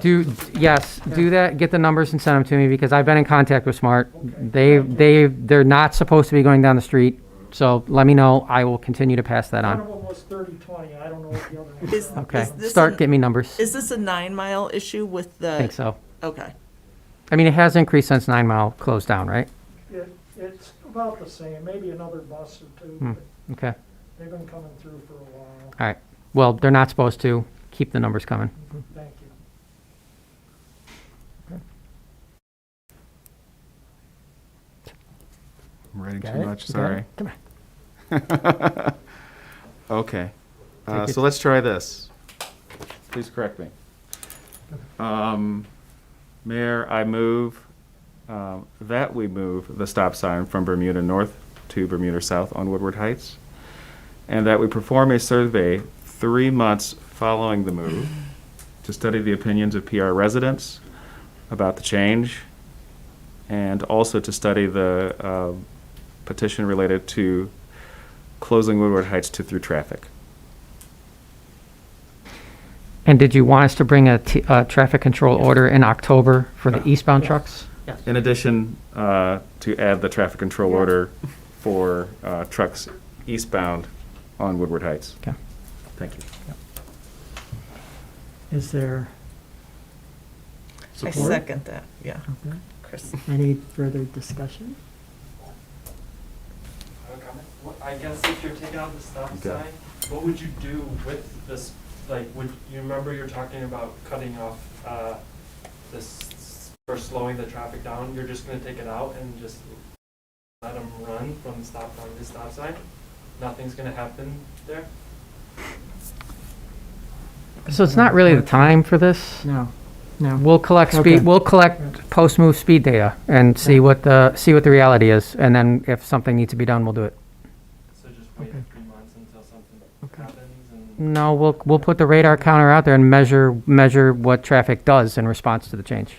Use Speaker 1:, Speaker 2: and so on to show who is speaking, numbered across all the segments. Speaker 1: Do, yes, do that, get the numbers and send them to me, because I've been in contact with Smart. They, they, they're not supposed to be going down the street, so let me know, I will continue to pass that
Speaker 2: One of
Speaker 1: on.
Speaker 2: them was thirty, twenty, I don't know what the other one
Speaker 3: Is-
Speaker 2: was.
Speaker 1: Okay,
Speaker 3: is this
Speaker 1: start,
Speaker 3: an-
Speaker 1: get me numbers, I
Speaker 3: Is this a nine mile issue with the?
Speaker 1: think so.
Speaker 3: Okay,
Speaker 1: I mean, it has increased since Nine Mile closed down, right?
Speaker 2: It, it's about the same, maybe another bus or two,
Speaker 1: Hmm.
Speaker 2: but
Speaker 1: Okay, all
Speaker 2: they've been coming through for a while,
Speaker 1: right. Well, they're not supposed to, keep the numbers coming.
Speaker 2: thank you.
Speaker 4: I'm writing
Speaker 1: Got
Speaker 4: too
Speaker 1: it?
Speaker 4: much,
Speaker 1: You got
Speaker 4: sorry.
Speaker 1: it? Come on.
Speaker 4: Okay. Uh,
Speaker 1: Take it.
Speaker 4: So let's try this. Please correct me. Um, Mayor, I move um, that we move the stop sign from Bermuda North to Bermuda South on Woodward Heights, and that we perform a survey three months following the move to study the opinions of PR residents about the change, and also to study the uh, petition related to closing Woodward Heights to through traffic.
Speaker 1: And did you want us to bring a, t- a traffic control order in October for the eastbound trucks?
Speaker 4: In addition, uh, to add the traffic control order for uh, trucks eastbound on Woodward Heights.
Speaker 1: Okay.
Speaker 4: Thank you.
Speaker 5: Is there
Speaker 3: I
Speaker 5: Support?
Speaker 3: second that, yeah,
Speaker 5: okay,
Speaker 3: Chris.
Speaker 5: any further discussion?
Speaker 6: I guess if you're taking out the stop
Speaker 4: Okay.
Speaker 6: sign, what would you do with this, like, would, you remember you're talking about cutting off, uh, this, or slowing the traffic down, you're just gonna take it out and just let them run from stop sign to stop sign? Nothing's gonna happen there?
Speaker 1: So it's not really the time for this?
Speaker 5: No, no.
Speaker 1: We'll collect
Speaker 5: Okay.
Speaker 1: speed, we'll collect post-move speed data and see what the, see what the reality is. And then if something needs to be done, we'll do it.
Speaker 6: So just wait
Speaker 5: Okay.
Speaker 6: three months until something
Speaker 5: Okay.
Speaker 6: happens and,
Speaker 1: No, we'll, we'll put the radar counter out there and measure, measure what traffic does in response to the change.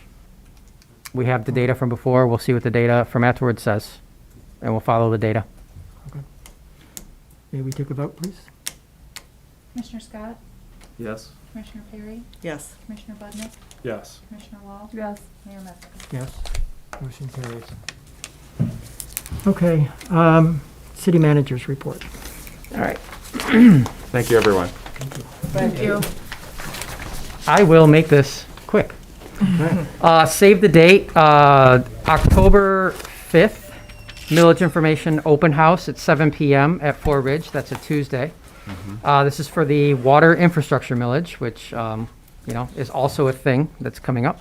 Speaker 1: We have the data from before, we'll see what the data from afterwards says, and we'll follow the data.
Speaker 5: May we take a vote, please?
Speaker 7: Commissioner Scott,
Speaker 4: Yes?
Speaker 7: Commissioner Perry,
Speaker 3: Yes,
Speaker 7: Commissioner Budnick,
Speaker 4: Yes.
Speaker 7: Commissioner Wall. Yes. Mayor Metzger.
Speaker 5: Yes, motion carries. Okay, um, city managers report.
Speaker 1: All right.
Speaker 4: Thank you, everyone.
Speaker 1: I will make this quick. Uh, Save the date, uh, October 5th, Millage Information Open House at 7 PM at Four Ridge. That's a Tuesday. Uh, This is for the water infrastructure millage, which, um, you know, is also a thing that's coming up.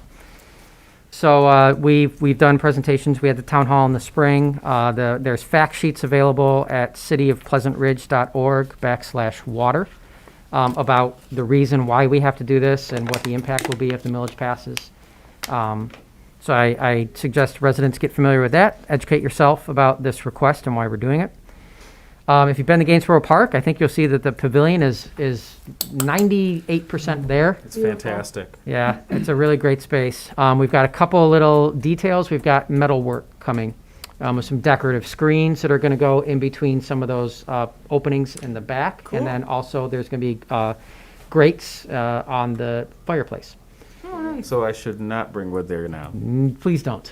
Speaker 1: So uh, we've, we've done presentations, we had the town hall in the spring. Uh, the- There's fact sheets available at cityofpleasantridge.org backslash water um, about the reason why we have to do this and what the impact will be if the millage passes. Um, So I, I suggest residents get familiar with that, educate yourself about this request and why we're doing it. Um, If you've been to Gainsborough Park, I think you'll see that the pavilion is, is 98% there.
Speaker 4: It's fantastic.
Speaker 1: Yeah, it's a really great space. Um, we've got a couple of little details. We've got metal work coming um, with some decorative screens that are going to go in between some of those uh, openings in the back. And then also there's going to be uh, grates uh, on the fireplace.
Speaker 4: So I should not bring wood there now.
Speaker 1: Mm, Please don't.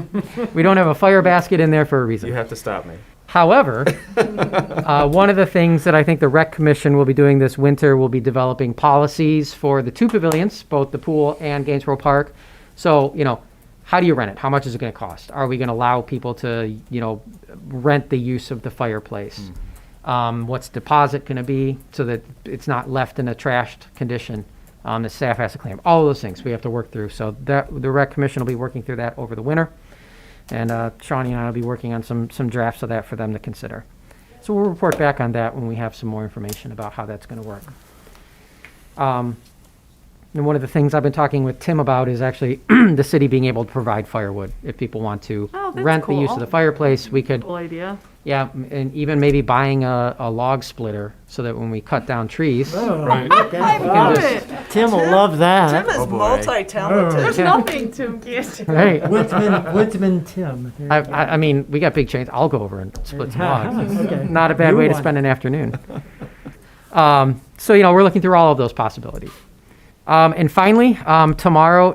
Speaker 1: we don't have a fire basket in there for a reason.
Speaker 4: You have to stop me.
Speaker 1: However, uh, one of the things that I think the Rec Commission will be doing this winter will be developing policies for the two pavilions, both the pool and Gainesborough Park. So, you know, how do you rent it? How much is it going to cost? Are we going to allow people to, you know, rent the use of the fireplace? Um, what's deposit going to be so that it's not left in a trashed condition? Um, the staff has to claim all of those things we have to work through. So that the Rec Commission will be working through that over the winter. And uh, Shawnee and I will be working on some, some drafts of that for them to consider. So we'll report back on that when we have some more information about how that's going to work. Um, And one of the things I've been talking with Tim about is actually the city being able to provide firewood. If people want to
Speaker 8: Oh, that's
Speaker 1: rent the use of the
Speaker 8: cool.
Speaker 1: fireplace, we could,
Speaker 8: Cool idea.
Speaker 1: yeah, m- and even maybe buying a, a log splitter so that when we cut down trees.
Speaker 5: Wow, Tim will love
Speaker 1: Uh,
Speaker 3: Tim
Speaker 5: that.
Speaker 3: is
Speaker 4: boy.
Speaker 3: multi-talented.
Speaker 8: There's nothing Tim can't do.
Speaker 1: Right.
Speaker 5: Woodsman, Woodsman Tim. There
Speaker 1: I,
Speaker 5: you go.
Speaker 1: I, I mean, we got big chains. I'll go over and split some logs.
Speaker 5: Okay.
Speaker 1: Not a bad
Speaker 5: You
Speaker 1: way to
Speaker 5: won.
Speaker 1: spend an afternoon. Um, so, you know, we're looking through all of those possibilities. Um, and finally, um, tomorrow